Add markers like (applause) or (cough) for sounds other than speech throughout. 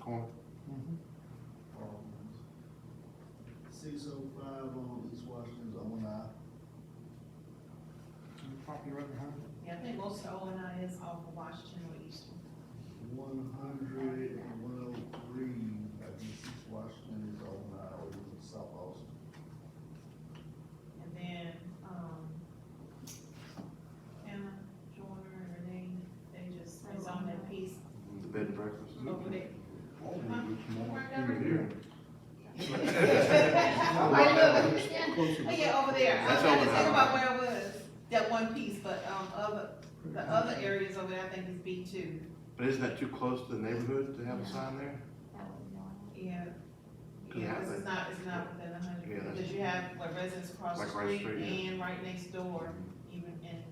corner. Six oh five on East Washington's own eye. Property right behind it. Yeah, I think most of O and I is off of Washington or Eastern. One hundred and one oh three, I think East Washington's own eye, or is it South Austin? And then, um, Hannah, Joyner, and Renee, they just, it's on that piece The bed and breakfast. over there. (laughs) I Closer look, to- yeah, over there, I That's was trying to over think there. about where it was, that one piece, but, um, other, the other areas over there, I think is B two. But isn't that too close to the neighborhood to have a sign there? Yeah, Cause yeah, I- it's not, it's not within a Yeah, hundred, that's- because you have like residents across the Like right street street, yeah. and right next door, even, and,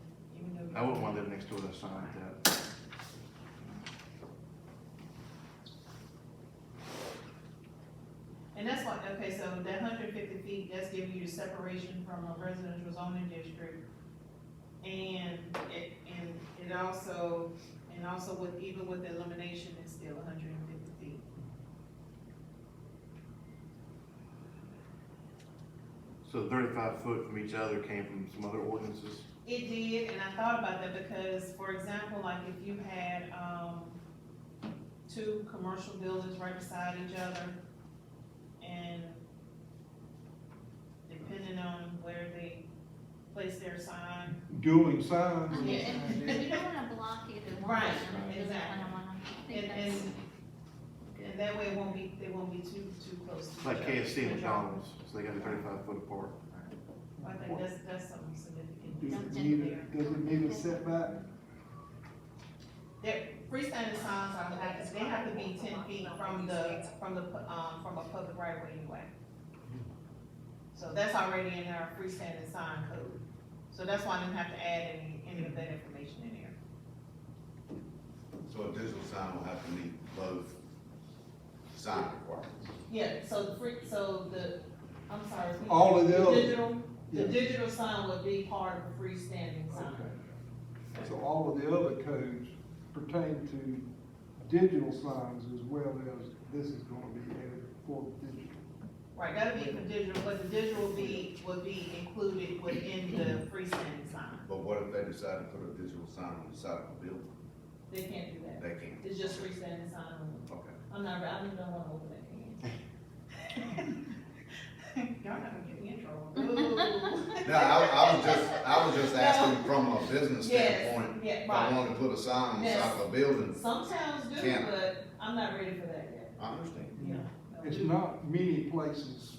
even though. I wouldn't want to live next door to a sign like that. And that's why, okay, so that hundred fifty feet, that's giving you the separation from a residential zoning district. And it, and it also, and also with, even with the elimination, it's still hundred and fifty feet. So thirty-five foot from each other came from some other ordinances. It did, and I thought about that because, for example, like if you had, um, two commercial buildings right beside each other, and depending on where they place their sign, Dueling signs. Yeah. You don't wanna block either one. Right, You just exactly. kinda wanna- I think and, that's- and, and that way it won't be, they won't be too, too close to It's each like other. KFC and McDonald's, so they got a thirty-five foot apart. I think that's, that's something significant. Does it need a, does it need a setback? Freestanding signs are, like- they have to be ten feet from the, from the, pu- um, from a public right of way anyway. So that's already in our freestanding sign code, so that's why I didn't have to add any, any of that information in there. So a digital sign will have to meet both sign requirements. Yeah, so the free, so the, I'm sorry. we- All of the those? Digital, the Yeah. digital sign would be part of the freestanding sign. Okay. So all of the other codes pertain to digital signs as well as this is gonna be added for digital. Right, that'll be for digital, but the digital will be, would be included within the freestanding sign, But what if they decide to put a digital sign on the side of a building? they can't do that, They can't. it's just freestanding sign only. Okay. I'm not, I don't want to open that can. (laughs) Y'all not gonna get me in (laughs) trouble. No, I, I was just, I was just asking from a business Yes, standpoint, yeah, if I right. wanted to put a sign on the side of a building, Some towns do, Can. but I'm not ready for that yet. I understand. Yeah. It's not many places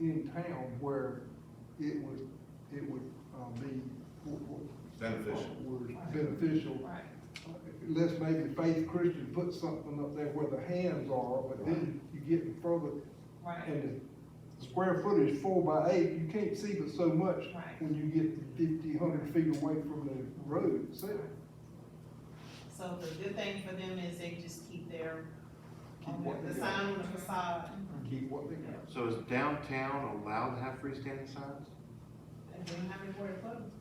in town where it would, it would, um, be, w- w- Beneficial. would beneficial Right, Unless maybe Faith Christian put something up there where the hands are, but then you get further, right, and the square footage is four by eight, you can't see but so much right. when you get fifty, hundred feet away from the road itself. So the good thing for them is they just keep their, Keep what the they sign on the facade, Keep what they got. So is downtown allowed to have freestanding signs? and they don't have anywhere to put them.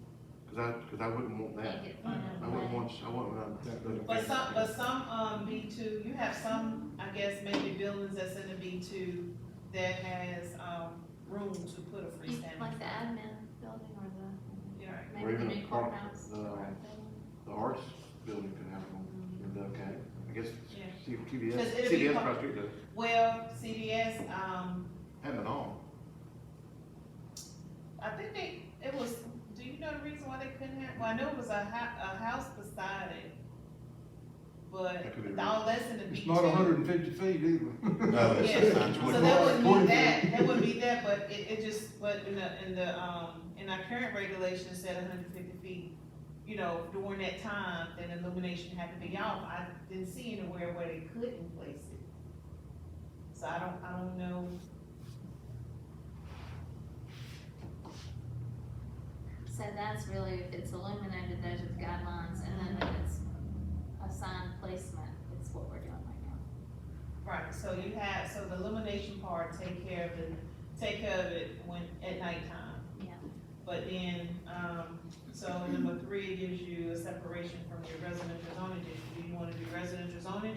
Cause I, cause I wouldn't want that. Can't get one of I wouldn't them. want, I wouldn't. want- But some, but some, um, B two, you have some, I guess, maybe buildings that's in the B two that has, um, room to put a It's freestanding. Like the admin building or the, Yeah. Or maybe the even new a park, uh, courthouse. the- or a building. The arts building could have one, and okay, I guess Yeah. C- CVS, Because it'd be CVS part- across the street does, Well, CBS, um, have it all. I think they, it was, do you know the reason why they couldn't have, well, I know it was a hou- a house beside it. But That could be the all that's in the B two. It's not hundred and fifty feet either. No, it's- Yeah, it's not so 20. that wouldn't be Twenty. that, that wouldn't be that, but it, it just, but in the, in the, um, in our current regulation it said hundred fifty feet. You know, during that time, then illumination had to be off, I didn't see anywhere where they couldn't place it. So I don't, I don't know. So that's really, if it's illuminated, those are the guidelines, and then if it's assigned placement, it's what we're doing right now. Right, so you have, so the illumination part, take care of it, take care of it when, at nighttime. Yeah. But then, um, so number three gives you a separation from your residential zoning district. Do you wanna do residential zoning